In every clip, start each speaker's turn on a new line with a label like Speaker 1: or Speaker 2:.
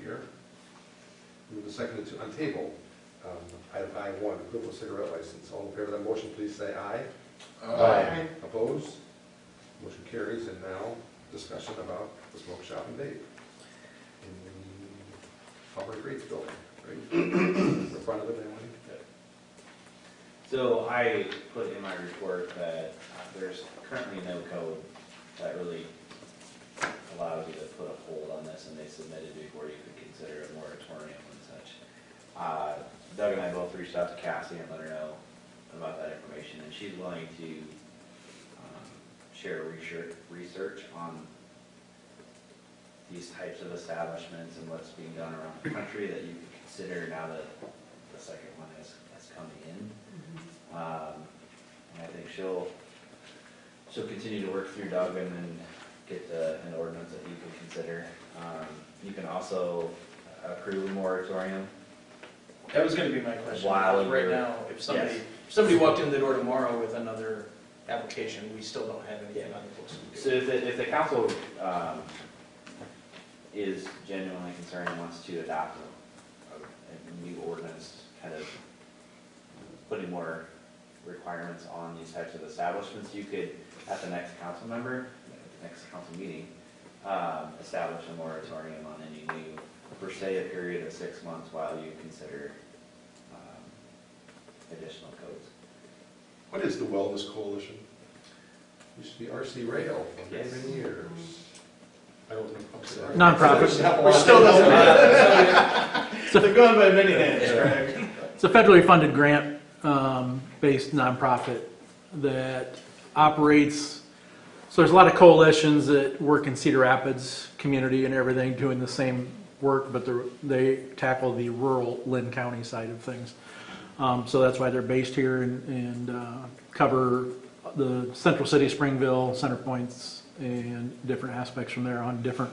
Speaker 1: here. Move the second to untable, um, item I one, equivalent cigarette license. All in favor of that motion, please say aye.
Speaker 2: Aye.
Speaker 1: Opposed? Motion carries, and now discussion about the smoke shop and vape. In the Public Reeds Building, right? In front of it, anyone?
Speaker 3: So I put in my report that there's currently no code that really allows you to put a hold on this, and they submitted before you could consider a moratorium and such. Uh, Doug and I both reached out to Cassie and let her know about that information, and she's willing to um, share research, research on these types of establishments and what's being done around the country that you could consider now that the second one is, is coming in. Um, and I think she'll, she'll continue to work through Doug and then get the, an ordinance that you can consider. Um, you can also approve a moratorium.
Speaker 2: That was gonna be my question,
Speaker 3: While
Speaker 2: because right
Speaker 3: you're-
Speaker 2: now, if somebody,
Speaker 3: Yes.
Speaker 2: if somebody walked in the door tomorrow with another application, we still don't have anything on the books.
Speaker 3: So if the, if the council, um, is genuinely concerned and wants to adopt a, a new ordinance, kind of putting more requirements on these types of establishments, you could, at the next council member, the next council meeting, um, establish a moratorium on any new, per se, a period of six months while you consider, um, additional codes.
Speaker 1: What is the Wellness Coalition? Used to be RC Rail for
Speaker 3: Yes.
Speaker 1: many years. I don't know. I'm sorry.
Speaker 2: Nonprofit. We're still doesn't matter. They're going by many names, correct?
Speaker 4: It's a federally funded grant-based nonprofit that operates, so there's a lot of coalitions that work in Cedar Rapids community and everything, doing the same work, but they're- they tackle the rural Lynn County side of things. Um, So that's why they're based here and- and uh, cover the central city, Springville, Center Points, and different aspects from there on different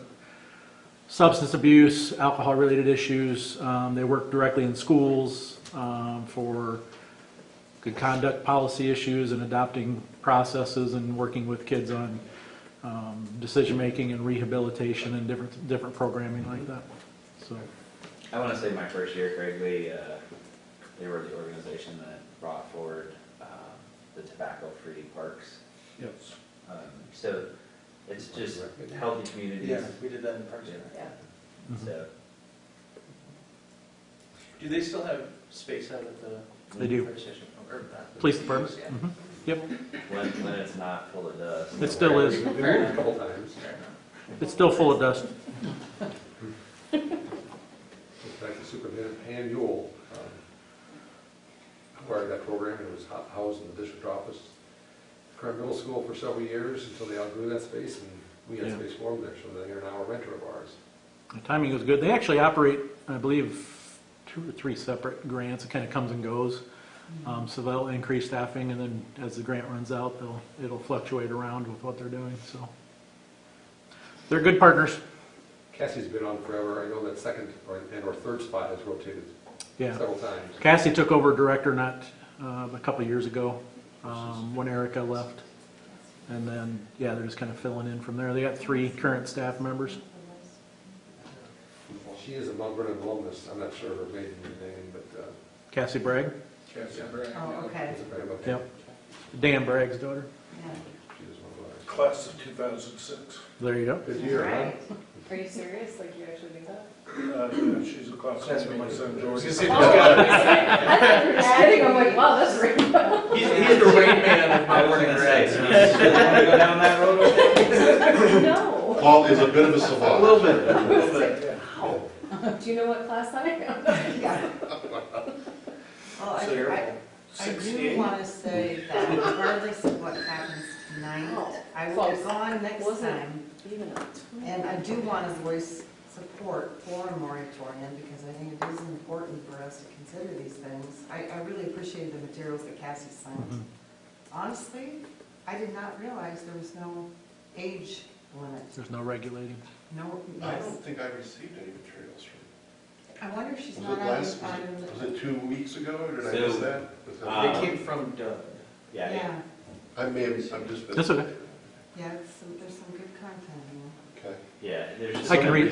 Speaker 4: substance abuse, alcohol-related issues. Um, They work directly in schools um, for good conduct policy issues and adopting processes and working with kids on um, decision-making and rehabilitation and different, different programming like that. So,
Speaker 3: I want to say my first year, Craig, they, uh, they were the organization that brought forward, um, the tobacco-free parks.
Speaker 4: Yep.
Speaker 3: Um, so it's just healthy communities.
Speaker 2: Yeah, we did that in Parks and Rec.
Speaker 3: Yeah.
Speaker 4: Mhm.
Speaker 3: So.
Speaker 2: Do they still have space out at the
Speaker 4: They do.
Speaker 2: fire station? Or not?
Speaker 4: Police department?
Speaker 2: Yeah.
Speaker 4: Mhm. Yep,
Speaker 3: When, when it's not full of dust.
Speaker 4: It still
Speaker 1: They
Speaker 4: is.
Speaker 1: moved a couple times.
Speaker 2: Fair enough.
Speaker 4: it's still full of dust.
Speaker 1: In fact, the superintendent, Han Yule, um, acquired that program, it was hou- housed in the district office, Current Middle School for several years until they outgrew that space, and we had
Speaker 4: Yeah.
Speaker 1: space for them there, so they are now a renter of ours.
Speaker 4: The timing was good. They actually operate, I believe, two or three separate grants. It kind of comes and goes. Um, So they'll increase staffing, and then as the grant runs out, they'll, it'll fluctuate around with what they're doing, so. They're good partners,
Speaker 1: Cassie's been on forever, I know that second or- and or third spot has rotated
Speaker 4: yeah.
Speaker 1: several times.
Speaker 4: Cassie took over director not, uh, a couple years ago, um, when Erica left. And then, yeah, they're just kind of filling in from there. They got three current staff members.
Speaker 1: She is a Mount Vernon alumnus, I'm not sure her maiden name, but. uh,
Speaker 4: Cassie Bragg,
Speaker 5: Oh, okay.
Speaker 1: it's a very much-
Speaker 4: Yep. Dan Bragg's daughter.
Speaker 1: She is one of ours.
Speaker 6: Class of 2006.
Speaker 4: There you go.
Speaker 1: Good year, huh?
Speaker 5: Right. Are you serious? Like you actually do that?
Speaker 6: Uh, yeah, She's a classmate of my son
Speaker 2: I was
Speaker 6: George.
Speaker 2: gonna say, there's gotta be-
Speaker 5: I thought you were just kidding. I'm like, wow, that's real.
Speaker 2: He's, he's the rain man of
Speaker 3: I was
Speaker 2: Parks
Speaker 3: gonna
Speaker 2: and
Speaker 3: say,
Speaker 2: Rec.
Speaker 3: so you want to go down that road? over there?
Speaker 5: No.
Speaker 7: Paul is a bit of a savant.
Speaker 2: A little bit, a little bit.
Speaker 1: Oh.
Speaker 5: Do you know what class I am?
Speaker 8: Well,
Speaker 2: So you're
Speaker 8: I, I, I do
Speaker 2: 68.
Speaker 8: want to say that regardless of what happens tonight, I will be
Speaker 5: Close.
Speaker 8: gone next
Speaker 5: Wasn't-
Speaker 8: time.
Speaker 5: Even a
Speaker 8: And I do want to voice support for a moratorium because I think it is important for us to consider these things. I, I really appreciate the materials that Cassie
Speaker 4: Mhm.
Speaker 7: Mm-hmm.
Speaker 8: sent. Honestly, I did not realize there was no age limit.
Speaker 4: There's no regulating.
Speaker 8: No,
Speaker 7: I
Speaker 8: yes.
Speaker 7: don't think I received any materials from
Speaker 8: I wonder if she's
Speaker 7: Was
Speaker 8: not
Speaker 7: it
Speaker 8: on,
Speaker 7: last, was
Speaker 8: on-
Speaker 7: it- was it two weeks ago, or did I
Speaker 3: So,
Speaker 7: miss that? Was that?
Speaker 4: uh,
Speaker 2: They came from Doug.
Speaker 3: Yeah, yeah.
Speaker 8: yeah,
Speaker 7: I may have, I've just been.
Speaker 4: That's okay.
Speaker 8: yeah, it's- there's some good content in there.
Speaker 7: Okay.
Speaker 3: Yeah, there's just
Speaker 4: I can
Speaker 3: so many
Speaker 4: read